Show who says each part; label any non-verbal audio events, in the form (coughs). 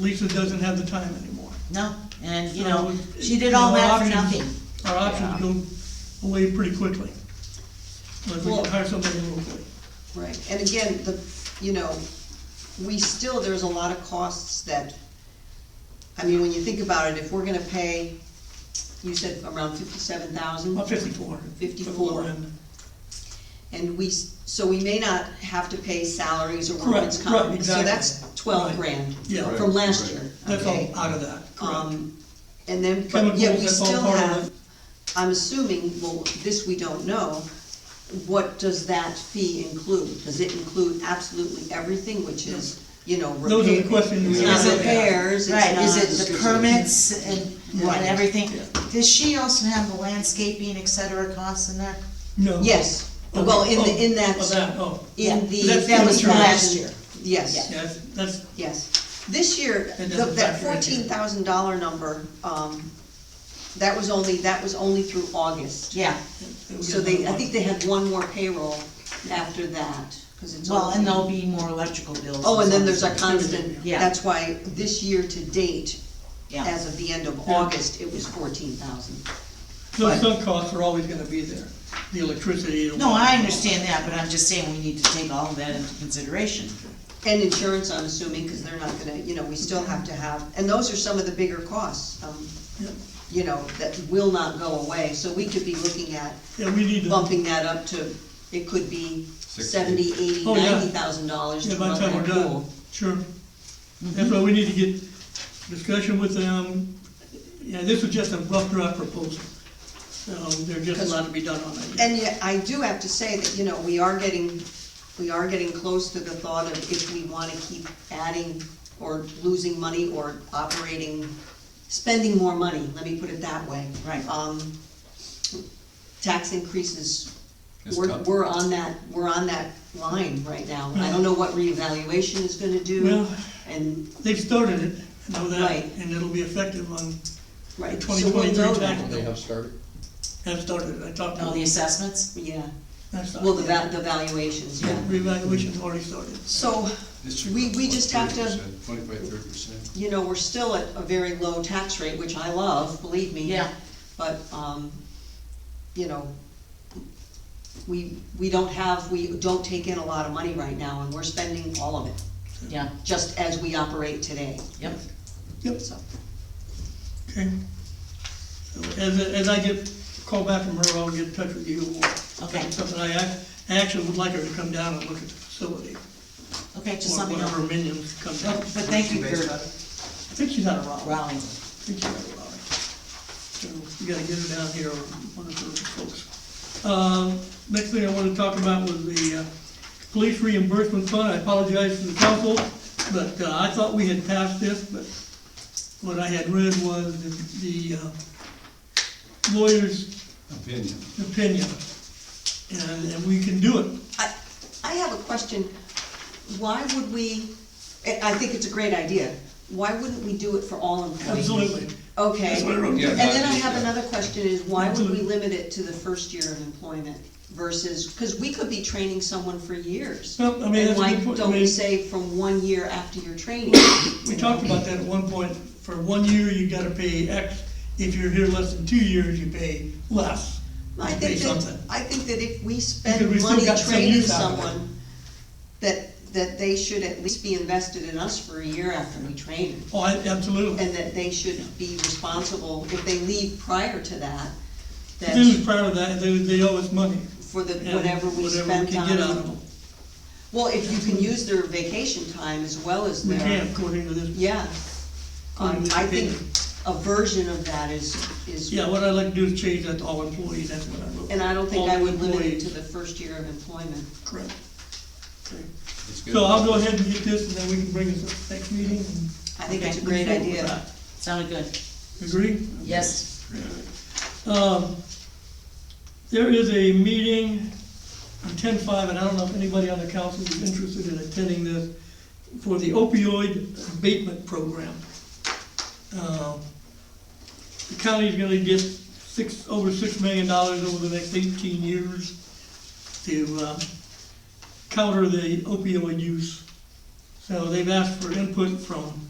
Speaker 1: Lisa doesn't have the time anymore.
Speaker 2: No, and you know,
Speaker 1: So,
Speaker 2: she did
Speaker 1: you
Speaker 2: all
Speaker 1: know,
Speaker 2: that for nothing.
Speaker 1: options- Our options go away pretty quickly. Unless we can
Speaker 3: Well-
Speaker 1: hire somebody locally.
Speaker 3: Right, and again, the, you know, we still, there's a lot of costs that, I mean, when you think about it, if we're gonna pay, you said around fifty-seven thousand,
Speaker 1: About fifty-four. for the
Speaker 3: 54.
Speaker 1: low end.
Speaker 3: and we, s- so we may not have to pay salaries or
Speaker 1: Correct,
Speaker 3: workers'
Speaker 1: right,
Speaker 3: comp.
Speaker 1: exactly.
Speaker 3: So that's twelve
Speaker 1: Right.
Speaker 3: grand
Speaker 1: Yeah.
Speaker 3: from last year,
Speaker 1: That's
Speaker 3: okay?
Speaker 1: all out of that, correct.
Speaker 3: Um, and then, but
Speaker 1: Chemicals,
Speaker 3: yet we
Speaker 1: that's all
Speaker 3: still
Speaker 1: part of
Speaker 3: have,
Speaker 1: it.
Speaker 3: I'm assuming, well, this we don't know, what does that fee include? Does it include absolutely everything, which is, you know, repair?
Speaker 1: Those are the questions we
Speaker 3: It's
Speaker 1: have.
Speaker 3: not repairs, it's
Speaker 2: Right, is
Speaker 3: not-
Speaker 2: it the permits and,
Speaker 3: Right.
Speaker 2: and everything?
Speaker 1: Yeah.
Speaker 2: Does she also have the landscaping, et cetera, costs in there?
Speaker 1: No.
Speaker 3: Yes, well, in the, in
Speaker 1: Oh,
Speaker 3: that,
Speaker 1: that, oh.
Speaker 3: in
Speaker 2: Yeah.
Speaker 3: the.
Speaker 1: That's the That was insurance.
Speaker 2: last year.
Speaker 3: Yes,
Speaker 1: Yes, that's,
Speaker 3: yes. This year,
Speaker 1: That
Speaker 3: the-
Speaker 1: doesn't
Speaker 3: that
Speaker 1: factor in here.
Speaker 3: fourteen thousand dollar number, um, that was only, that was only through August.
Speaker 2: Yeah,
Speaker 1: we
Speaker 3: So
Speaker 1: got
Speaker 3: they,
Speaker 1: another
Speaker 3: I
Speaker 1: one.
Speaker 3: think they had one more payroll after that, because it's.
Speaker 2: well,
Speaker 3: all-
Speaker 2: and there'll be more electrical bills.
Speaker 3: Oh, and then there's a
Speaker 2: stuff.
Speaker 3: constant,
Speaker 2: Yeah.
Speaker 3: that's why this year to date,
Speaker 2: Yeah,
Speaker 3: as of the end of
Speaker 1: Yeah.
Speaker 3: August, it was fourteen thousand.
Speaker 1: Those sunk costs are always gonna be there, the electricity. the
Speaker 2: no,
Speaker 1: water.
Speaker 2: I understand that, but I'm just saying we need to take all of that into consideration.
Speaker 3: And insurance, I'm assuming, because they're not gonna, you know, we still have to have, and those are some of the bigger costs, um,
Speaker 1: Yeah.
Speaker 3: you know, that will not go away, so we could be looking at
Speaker 1: Yeah, we need to, yeah,
Speaker 3: bumping that up to, it could be seventy, eighty,
Speaker 1: Oh, yeah.
Speaker 3: ninety thousand dollars to
Speaker 1: by the
Speaker 3: run
Speaker 1: time
Speaker 3: that
Speaker 1: we're done,
Speaker 3: pool.
Speaker 1: sure.
Speaker 2: Mm-hmm.
Speaker 1: That's why we need to get discussion with them. Yeah, this was just a rough draft proposal. Um, there's just a lot to be done on it.
Speaker 3: And yet, I do have to say that, you know, we are getting, we are getting close to the thought of if we wanna keep adding or losing money or operating, spending more money, let me put it that way.
Speaker 2: Right.
Speaker 3: Um, tax increases,
Speaker 4: It's
Speaker 3: we're,
Speaker 4: tough.
Speaker 3: we're on that, we're on that line right now. I don't know what reevaluation is gonna do,
Speaker 1: Well-
Speaker 3: and,
Speaker 1: They've started it, I know that,
Speaker 3: Right.
Speaker 1: and it'll be effective on,
Speaker 3: right, so
Speaker 1: Twenty
Speaker 3: we'll
Speaker 1: twenty-three
Speaker 3: know
Speaker 1: tax.
Speaker 3: that.
Speaker 4: They have started.
Speaker 1: have started, I talked to
Speaker 2: All the
Speaker 1: them.
Speaker 2: assessments?
Speaker 3: Yeah,
Speaker 1: That's not-
Speaker 3: well, the va- the valuations,
Speaker 1: Yeah,
Speaker 3: yeah.
Speaker 1: revaluation's already started.
Speaker 3: So, we, we just have to,
Speaker 4: Twenty-five, thirty percent.
Speaker 3: you know, we're still at a very low tax rate, which I love, believe me.
Speaker 2: Yeah.
Speaker 3: But, um, you know, we, we don't have, we don't take in a lot of money right now, and we're spending all of it,
Speaker 2: Yeah,
Speaker 3: just as we operate today,
Speaker 2: yep,
Speaker 1: Yep,
Speaker 3: so.
Speaker 1: okay. So As, as I get called back from her, I'll get in touch with you. or
Speaker 2: Okay.
Speaker 1: Something I, ac- I actually would like her to come down and look at the facility.
Speaker 2: okay, just
Speaker 1: Or
Speaker 2: let me
Speaker 1: one of her
Speaker 2: know.
Speaker 1: minions come down.
Speaker 2: But
Speaker 1: I
Speaker 2: thank you for
Speaker 1: think she's out of Raleigh.
Speaker 2: rallying.
Speaker 1: I think she's out of Raleigh. So we gotta get her down here, or one of her folks. Um, next thing I wanted to talk about was the, uh, police reimbursement fund. I apologize to the council, but, uh, I thought we had passed this, but what I had read was the, the uh, lawyer's
Speaker 4: Opinion.
Speaker 1: opinion. And, and we can do it.
Speaker 3: I, I have a question, why would we, I, I think it's a great idea, why wouldn't we do it for all employees?
Speaker 1: Absolutely.
Speaker 3: Okay.
Speaker 1: That's what I wrote down.
Speaker 3: And then I have another question is, why would we
Speaker 1: Absolutely.
Speaker 3: limit it to the first year of employment versus, because we could be training someone for years.
Speaker 1: Well, I mean, that's a good
Speaker 3: And why
Speaker 1: point. I
Speaker 3: don't we
Speaker 1: mean-
Speaker 3: say from one year after your training?
Speaker 1: (coughs) We talked about that at one point, for one year, you gotta pay X, if you're here less than two years, you pay less.
Speaker 3: I
Speaker 1: You pay
Speaker 3: think that,
Speaker 1: something.
Speaker 3: I think that if we
Speaker 1: Because we've
Speaker 3: spend
Speaker 1: still
Speaker 3: money
Speaker 1: got some
Speaker 3: training
Speaker 1: use out of it.
Speaker 3: someone, that, that they should at least be invested in us for a year after we train them.
Speaker 1: Oh, I- absolutely.
Speaker 3: And that they should be responsible, if they leave prior to that,
Speaker 1: If they was
Speaker 3: that
Speaker 1: proud of that, they, they owe us money.
Speaker 3: for the,
Speaker 1: and
Speaker 3: whatever
Speaker 1: Hmm. Whatever
Speaker 3: we
Speaker 1: we
Speaker 3: spent
Speaker 1: can
Speaker 3: on
Speaker 1: get out of them.
Speaker 3: Well, if you can use their vacation time as well as
Speaker 1: We
Speaker 3: their.
Speaker 1: can, according to this.
Speaker 3: Yeah. Um, I think a version of that is, is,
Speaker 1: Yeah, what I'd like to do is change that to all employees, that's what I wrote.
Speaker 3: and I don't think I
Speaker 1: All
Speaker 3: would limit it
Speaker 1: employees.
Speaker 3: to the first year of employment.
Speaker 1: Correct. Okay.
Speaker 4: It's good.
Speaker 1: So I'll go ahead and get this, and then we can bring this up next meeting. and
Speaker 3: I think it's a
Speaker 2: Okay.
Speaker 3: great
Speaker 1: move forward with
Speaker 3: idea.
Speaker 1: that.
Speaker 2: Sounded good,
Speaker 1: Agree?
Speaker 2: yes,
Speaker 1: Um, There is a meeting on ten-five, and I don't know if anybody on the council is interested in attending this, for the opioid abatement program. Um, The county's gonna get six, over six million dollars over the next eighteen years to uh, counter the opioid use. So they've asked for input from